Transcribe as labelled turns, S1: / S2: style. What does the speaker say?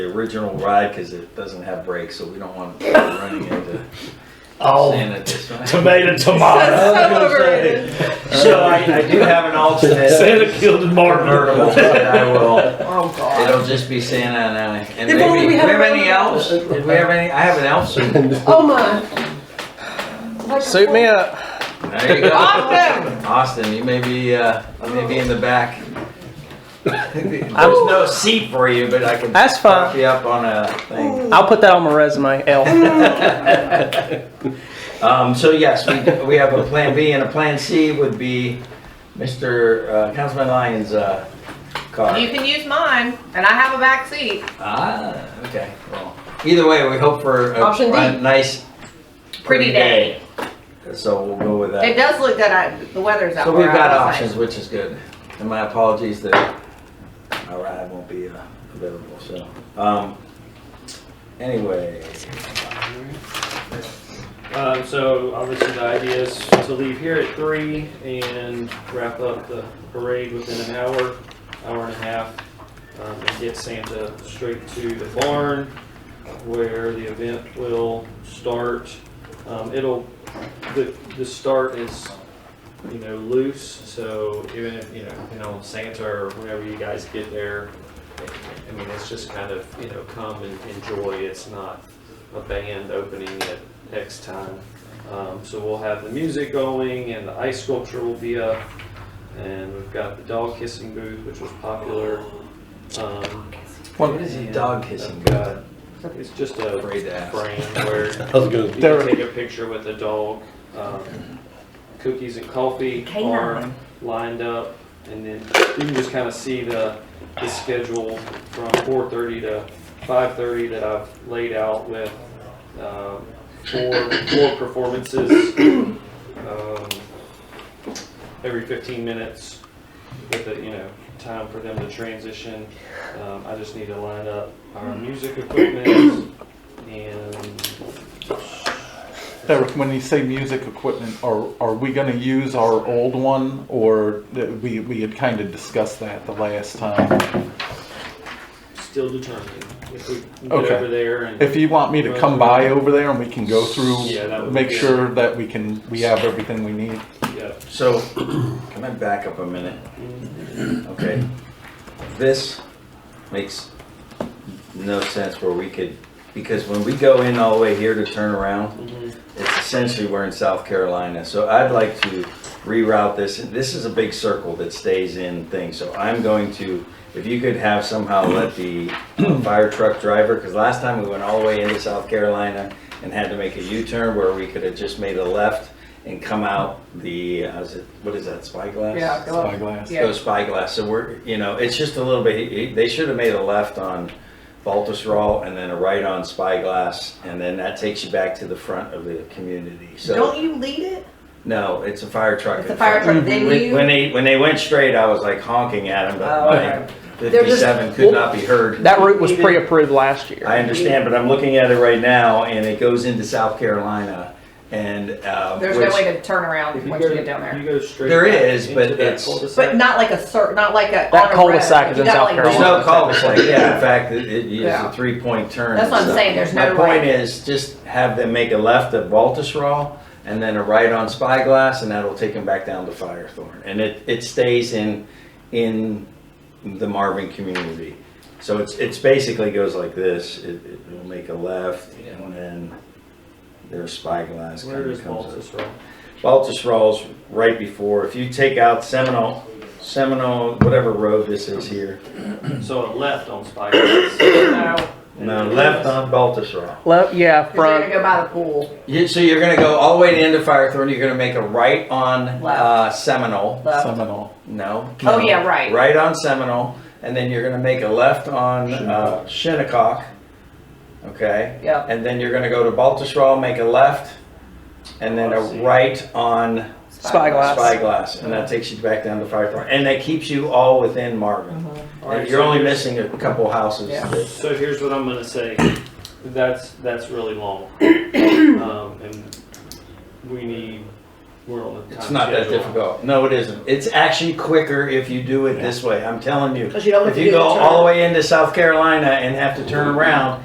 S1: the original ride because it doesn't have brakes, so we don't want to running into sand
S2: Oh,
S1: at this time.
S2: tomato, tomato.
S1: I was gonna
S3: overrated.
S1: say, So I, I do have an alternate
S2: Santa killed his
S1: convertible
S2: martyr.
S1: that I will,
S3: Oh
S1: it'll
S3: god.
S1: just be Santa and I. And
S3: If
S1: maybe,
S3: only we
S1: do we
S3: had
S1: have
S3: our
S1: any
S3: own
S1: elves? Did we have any, I have an elf suit.
S3: Oh my. Like
S4: Suit me up.
S1: There you go.
S3: Awesome.
S1: Austin, you may be, uh, you may be in the back. There's no seat for you, but I can.
S4: That's fine.
S1: prop You up on a thing.
S4: I'll put that on my resume, L.
S1: Um, so yes, we, we have a plan B and a plan C would be Mr. uh, Councilman Lyons' uh, car.
S3: You can use mine, and I have a back seat.
S1: Ah, okay, well, either way, we hope for a
S3: Option D.
S1: a nice.
S3: Pretty day.
S1: So we'll go with that.
S3: It does look good. I, the weather's out.
S1: So
S3: where
S1: we've
S3: I
S1: got
S3: was like-
S1: options, which is good. And my apologies that my ride won't be uh, available, so, um, anyway.
S5: Um, so obviously the idea is to leave here at three and wrap up the parade within an hour, hour and a half, um, and get Santa straight to the barn where the event will start. Um, it'll, the, the start is, you know, loose, so even if, you know, you know, Santa or whenever you guys get there, I mean, it's just kind of, you know, come and enjoy. It's not a band opening at X time. Um, so we'll have the music going and the ice sculpture will be up. And we've got the dog kissing booth, which was popular. Um,
S1: What is he dog kissing? God,
S5: it's just a
S1: Afraid to ask.
S5: frame where
S2: That was good.
S5: you can take a picture with a dog. Um, cookies and coffee are lined up, and then you can just kind of see the, the schedule from 4:30 to 5:30 that I've laid out with um, four four performances um, every 15 minutes with the, you know, time for them to transition. Um, I just need to line up our music equipment and
S6: Eric, when you say music equipment, are, are we gonna use our old one, or that we, we had kind of discussed that the last time?
S5: still determining if we can get
S6: Okay.
S5: over there and
S6: If you want me to come by over there and we can go
S5: Yeah, that
S6: through,
S5: would
S6: make
S5: be-
S6: sure that we can, we have everything we need.
S5: yeah.
S1: So, can I back up a minute? Okay, this makes no sense where we could, because when we go in all the way here to turn around,
S5: Mhm.
S1: it's essentially we're in South Carolina, so I'd like to reroute this, and this is a big circle that stays in things, so I'm going to, if you could have somehow let the uh, fire truck driver, because last time we went all the way into South Carolina and had to make a U-turn where we could have just made a left and come out the, uh, is it, what is that, spyglass?
S3: Yeah. Hello.
S6: Spyglass.
S3: Yeah.
S1: go spyglass. So we're, you know, it's just a little bit, they should have made a left on Baltusrol and then a right on Spyglass, and then that takes you back to the front of the community. So,
S3: Don't you lead it?
S1: no, it's a fire truck.
S3: It's
S1: in
S3: a fire
S1: front.
S3: truck. Then
S1: When
S3: you.
S1: when they, when they went straight, I was like honking at them,
S3: Oh, okay.
S1: but my
S4: They're just-
S1: fifty-seven could not be heard.
S4: That route was pre-approved last year.
S1: I understand, but I'm looking at it right now, and it goes into South Carolina, and, uh.
S3: There's
S1: which-
S3: no way to turn around
S5: If
S3: once you get down there.
S5: You go straight.
S1: There
S5: back
S1: is,
S5: into
S1: but
S5: that
S1: it's-
S5: cul-de-sac.
S3: But not like a cert, not like a.
S4: That
S3: on a
S4: cul-de-sac
S3: road.
S4: is
S3: You
S4: in
S3: gotta,
S4: South
S3: like,
S1: There's
S4: Carolina.
S1: no cul-de-sac, yeah, in fact, it, it is
S3: Yeah.
S1: a three-point turn.
S3: That's what I'm saying, there's no
S1: My point
S3: right.
S1: is, just have them make a left at Baltusrol, and then a right on Spyglass, and that'll take them back down to Firethorn. And it, it stays in, in the Marvin community. So it's, it's basically goes like this, it, it'll make a left, and then there's Spyglass.
S5: Where
S1: kinda
S5: is
S1: comes up.
S5: Baltus Rock?
S1: Baltusrol's right before, if you take out Seminole, Seminole, whatever road this is here,
S5: So a left on Spyglass.
S3: No,
S1: no, left on Baltusrol.
S4: Left,
S3: you're gonna
S4: yeah, front.
S3: go by the pool.
S1: You, so you're gonna go all the way to end of Firethorn. You're gonna make a right on uh, Seminole.
S3: left.
S6: Seminole.
S1: No.
S3: Oh, yeah, right.
S1: Right on Seminole, and then you're gonna make a left on uh, Shinnecock. Okay.
S3: Yep.
S1: And then you're gonna go to Baltusrol, make a left, and then
S5: I see.
S1: a right on
S4: Spyglass.
S1: Spyglass, and that takes you back down to Firethorn, and that keeps you all within Marvin.
S3: Mm-hmm.
S5: Alright,
S1: And you're
S5: so
S1: only
S5: here's-
S1: missing a couple houses.
S3: Yeah.
S1: that-
S5: So here's what I'm gonna say. That's, that's really long. Um, and we need we're on the time
S1: It's not that
S5: schedule.
S1: difficult. No, it isn't. It's actually quicker if you do it this way. I'm telling you.
S3: Because you don't have
S1: If
S3: to
S1: you
S3: do
S1: go
S3: the turn.
S5: Mm-hmm.
S1: all the way into South Carolina and have to turn around,